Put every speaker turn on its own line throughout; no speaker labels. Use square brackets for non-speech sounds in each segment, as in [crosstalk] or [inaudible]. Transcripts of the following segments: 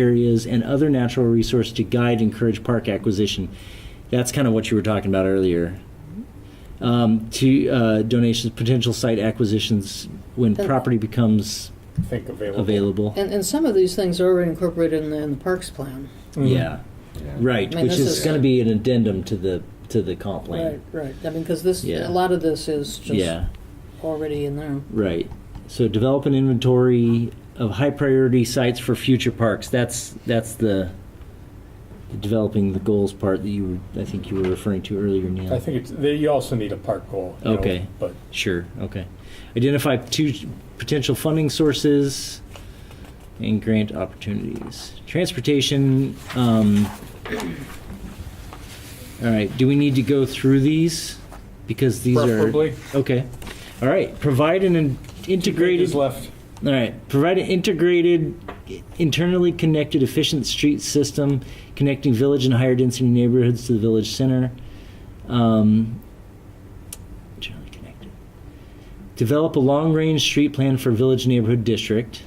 areas and other natural resources to guide and encourage park acquisition. That's kind of what you were talking about earlier. Um, to uh, donations, potential site acquisitions when
Then-
property becomes
think available.
available.
And, and some of these things are already incorporated in the, in the parks plan.
Mm-hmm.
Yeah, right.
I mean,
Which
this
is,
is-
going to be an addendum to the to the comp plan.
Right, right. I mean, because this,
Yeah.
a lot of this is just
Yeah,
already in there.
right. So develop an inventory of high priority sites for future parks. That's that's the developing the goals part that you were I think you were referring to earlier, Neil.
I think it's, they- you also need a park goal. you know,
Okay.
But
Sure, okay. Identify two potential funding sources and grant opportunities. Transportation, um, all right, do we need to go through these? Because these are.
preferably,
Okay, all right, provide an in- integrated.
is left.
All right. Provide an integrated, internally connected, efficient street system connecting village and higher density neighborhoods to the village center. Um, internally connected. Develop a long range street plan for village neighborhood district.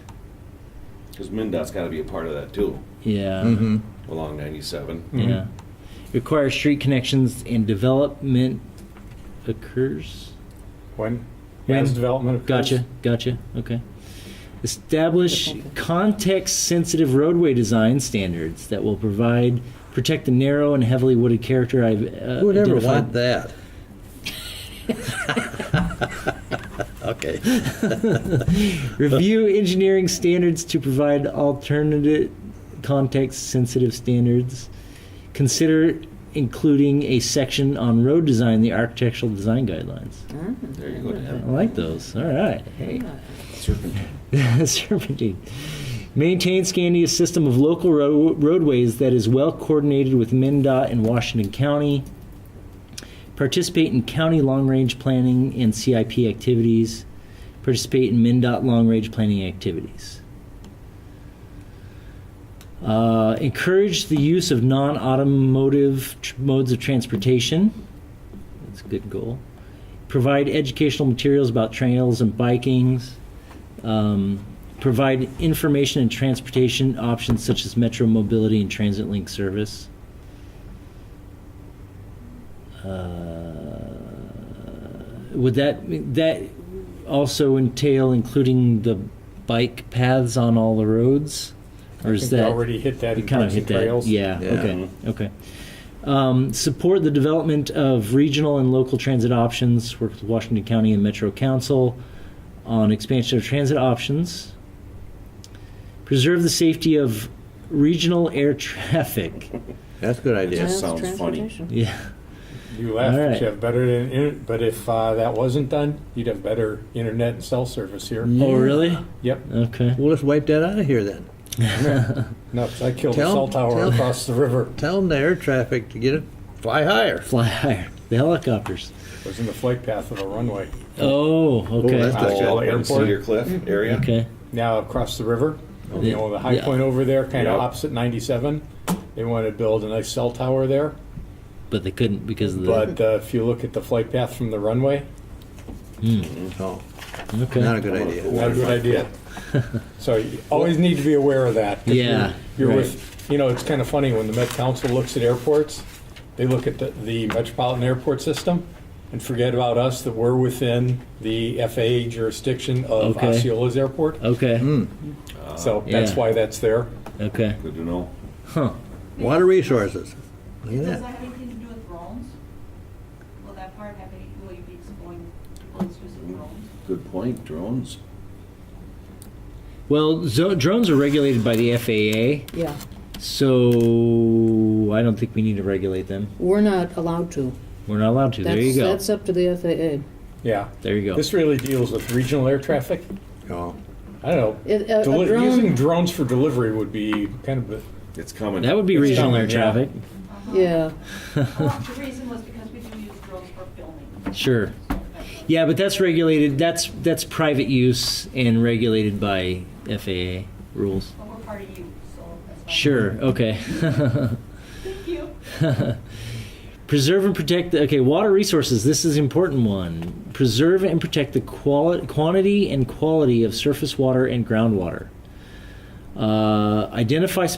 Because MnDOT's got to be a part of that too,
Yeah.
along 97.
Yeah. Require street connections and development occurs.
When?
When?
As development occurs.
Gotcha. Gotcha. Okay. Establish context sensitive roadway design standards that will provide protect the narrow and heavily wooded character I've uh,
Who would ever
identified.
want that? okay.
Review engineering standards to provide alternative context sensitive standards. Consider including a section on road design in the architectural design guidelines.
Mm,
There you go,
I
Dan.
like those. All right. Hey. [laughs]
Serpentine.
Serpentine. Maintain Scandia's system of local ro- roadways that is well coordinated with MnDOT and Washington County. Participate in county long range planning and CIP activities. Participate in MnDOT long range planning activities. Uh, encourage the use of non automotive tr- modes of transportation. That's a good goal. Provide educational materials about trails and bikings um, provide information and transportation options such as metro mobility and transit link service. Uh, would that that also entail including the bike paths on all the roads, or
I
is
think
that
we already hit that
we
in
kind of
Parks
hit
and
that?
Trails.
Yeah,
Yeah.
Okay. Okay. Um, support the development of regional and local transit options. Work with Washington County and Metro Council on expansion of transit options. Preserve the safety of regional air [laughs] traffic.
That's a good
That
idea.
That's
sounds funny.
transportation.
Yeah.
You laugh,
All
but
right.
you have better, in- in- but if uh, that wasn't done, you'd have better internet and cell service here.
Oh, really?
Yep.
Okay.
Well, let's wipe that out of here then.
Nuts. I killed
Tell-
a cell tower
tell-
across the river.
Tell them the air traffic to get it fly higher.
Fly higher. The helicopters.
It was in the flight path of a runway.
Oh, okay.
that's-
That's
Oh,
got
airport.
Cedar
Mm-hmm.
Cliff area.
okay.
Now across the river, you know, the high
Yeah.
point over there, kind of
Yeah.
opposite 97. They wanted to build a nice cell tower there.
But they couldn't because of the.
But uh, if you look at the flight path from the runway,
Oh,
okay.
not a good idea.
not a good idea. so you always need to be aware of that. 'cause
Yeah,
You're, you're
right.
with, you know, it's kind of funny when the Met Council looks at airports, they look at the, the metropolitan airport system and forget about us that we're within the FAA jurisdiction of
Okay.
Osceola's airport.
okay.
so that's
Yeah.
why that's there.
Okay.
Good to know.
Huh.
Water resources. Look at
Does that
that.
have anything to do with drones? Will that part have any, will you be exploring people's use of
[laughs]
drones?
Good point, drones.
Well, zo- drones are regulated by the FAA,
Yeah,
so I don't think we need to regulate them.
we're not allowed to.
We're not allowed to.
That's,
there you go.
That's up to the FAA.
Yeah.
there you go.
This really deals with regional air traffic.
Oh,
I don't know.
It- uh, a- a
Deli-
drone-
using drones for delivery would be kind of. a-
It's coming.
that would be
It's
regional
coming,
air
yeah.
traffic.
Yeah,
Well, the reason was because we do use drones for filming.
Sure. Yeah, but that's regulated. That's that's private use and regulated by FAA rules.
But we're part of you, so that's fine.
Sure. Oh. Okay. [laughs]
Thank you.
Preserve and protect the okay water resources. This is an important one. Preserve and protect the quali- quantity and quality of surface water and groundwater. Uh, identify